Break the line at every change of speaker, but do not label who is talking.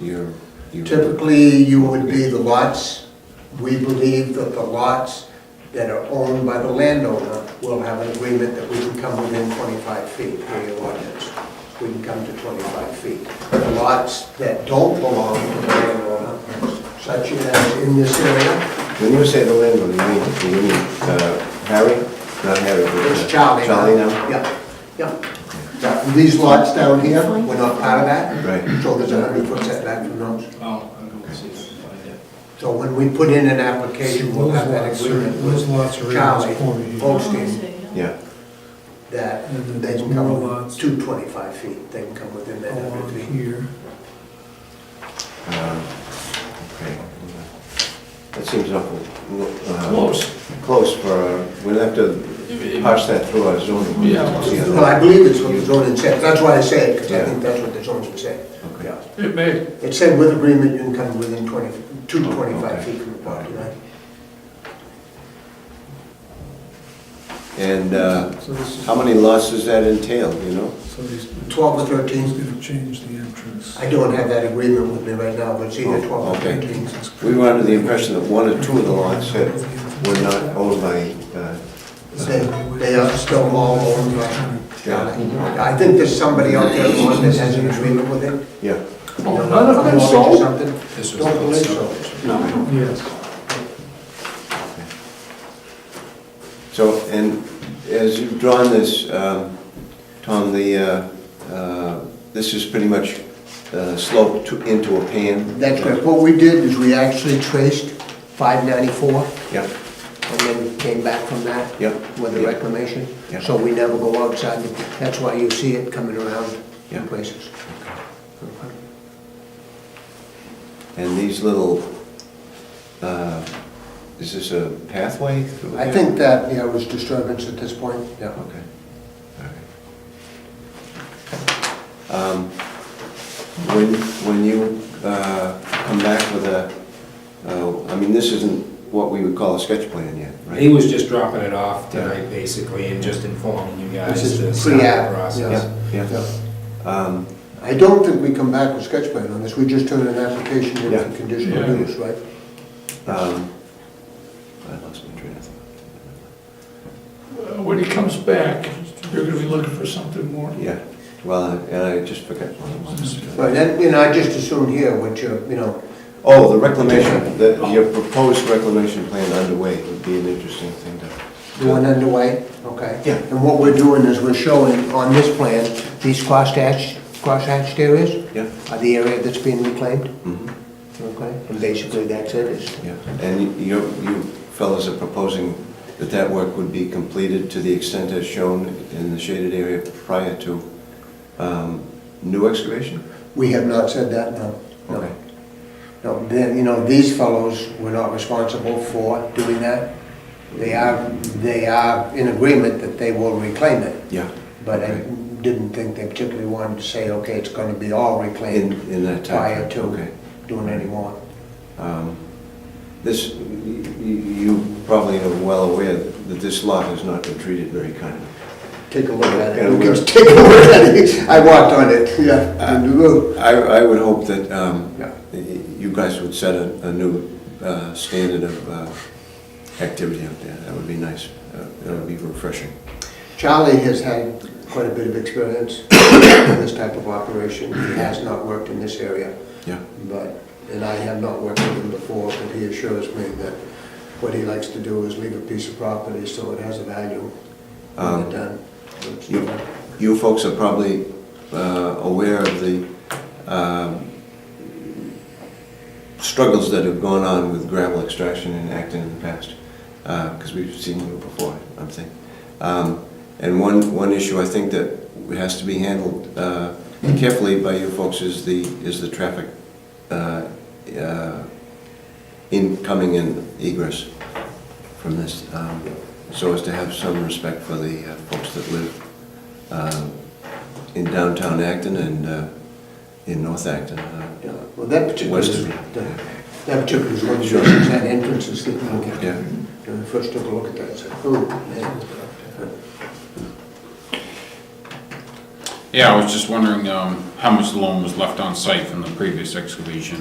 You're, you're.
Typically, you would be the lots. We believe that the lots that are owned by the landowner will have an agreement that we can come within 25 feet per your ordinance. We can come to 25 feet. The lots that don't belong to the landowner, such as in this area,
When you say the landlord, you mean, you mean, uh, Harry? Not Harry, but. uh,
it's Charlie.
Charlie now?
Yeah, yeah. Yeah, and These lots down here, we're not part of that.
Right.
So there's a 100-foot setback from those.
Oh, I'm going to see if I can find it.
So when we put in an application, we'll have that agreement
Those
with
lots are in
Charlie
this corner here.
Holstein
Yeah,
that
And then
they can
there's more
come
lots.
to 25 feet, they can come within that
Along
100 feet.
here.
um, okay. That seems awful. uh,
Close.
Close for, uh, we'll have to parse that through our zoning.
Yeah.
See how that-
Well, I believe it's what the zoning said, that's why I say it, because I
Yeah.
think that's what the zoning said.
Okay.
Yeah.
It may,
It said with agreement, you can come within 20, to
Oh,
25
okay.
feet from the property line.
And uh,
So this is,
how many lots does that entail, you know?
so he's,
12 or
he's
13,
gonna change the entrance.
I don't have that agreement with me right now, but it's either
Oh,
12 or
okay.
13.
We were under the impression that one or two of the lots had, were not owned by, uh,
They they are still all owned by Charlie. I think there's somebody out there, one that has an agreement with it.
yeah.
They'll
none of
come
them
along or
sold?
something.
This was
Don't believe so.
Yes,
So, and as you've drawn this, um, Tom, the, uh, uh, this is pretty much uh, sloped to- into a pan?
That's correct. What we did is we actually traced 594
Yeah,
and then came back from that.
Yep.
With the reclamation.
Yep.
So we never go outside. That's why you see it coming around in
Yep.
places.
and these little, uh, is this a pathway through?
I
here?
think that, yeah, was disturbance at this point.
Yeah, okay, all right. Um, When, when you uh, come back with a, uh, I mean, this isn't what we would call a sketch plan yet, right?
He was just dropping it off tonight, basically, and just informing you guys
This is
the start of
pre-app,
the
yeah.
process.
Yeah. Um,
I don't think we come back with sketch plan on this. We just turn an application in
Yeah.
for conditional
Yeah.
use, right?
um, I lost my train of thought.
Uh, When he comes back, you're gonna be looking for something more.
Yeah, well, and I just forgot what it was.
Right, and, you know, I just assumed here what you're, you know,
Oh, the reclamation, the, your proposed reclamation plan underway would be an interesting thing to.
doing underway, okay?
Yeah.
And what we're doing is we're showing on this plan, these crosshatch, crosshatched areas
Yeah,
are the area that's being reclaimed,
mhm,
okay? And basically, that's it, is
yeah. And you, you fellows are proposing that that work would be completed to the extent as shown in the shaded area prior to, um, new excavation?
we have not said that, no. no.
Okay.
No, then, you know, these fellows were not responsible for doing that. They are, they are in agreement that they will reclaim it,
Yeah.
but I
Okay.
didn't think they particularly wanted to say, okay, it's gonna be all
In,
reclaimed
in that time.
prior
Okay.
to doing any more.
Um, This, y- y- you probably are well aware that this lot has not been treated very kindly.
Take a look at
Yeah,
it. We
we're-
can take a look at it. I walked on it, Uh, yeah. And look.
I, I would hope that um,
Yeah.
y- you guys would set a, a new uh, standard of uh, activity out there. That would be nice. Uh, That would be refreshing.
Charlie has had quite a bit of experience in this type of operation. He has not worked in this area,
Yeah,
but, and I have not worked with him before, but he assures me that what he likes to do is leave a piece of property so it has a value when
Um,
it's done.
you- You folks are probably uh, aware of the um, struggles that have gone on with gravel extraction in Acton in the past, because we've seen them before, I'm thinking. Um, And one, one issue I think that has to be handled uh, carefully by you folks is the, is the traffic uh, uh, incoming and egress from this, um, so as to have some respect for the uh, folks that live uh, in downtown Acton and uh, in North Acton. uh,
Yeah, Well, that particular,
West of-
that that particular is one of the
Sure.
reasons that entrance is getting looked at.
Yeah.
When we first took a look at that, it's like, oh, man.
Yeah, I was just wondering um, how much loam was left on site from the previous excavation?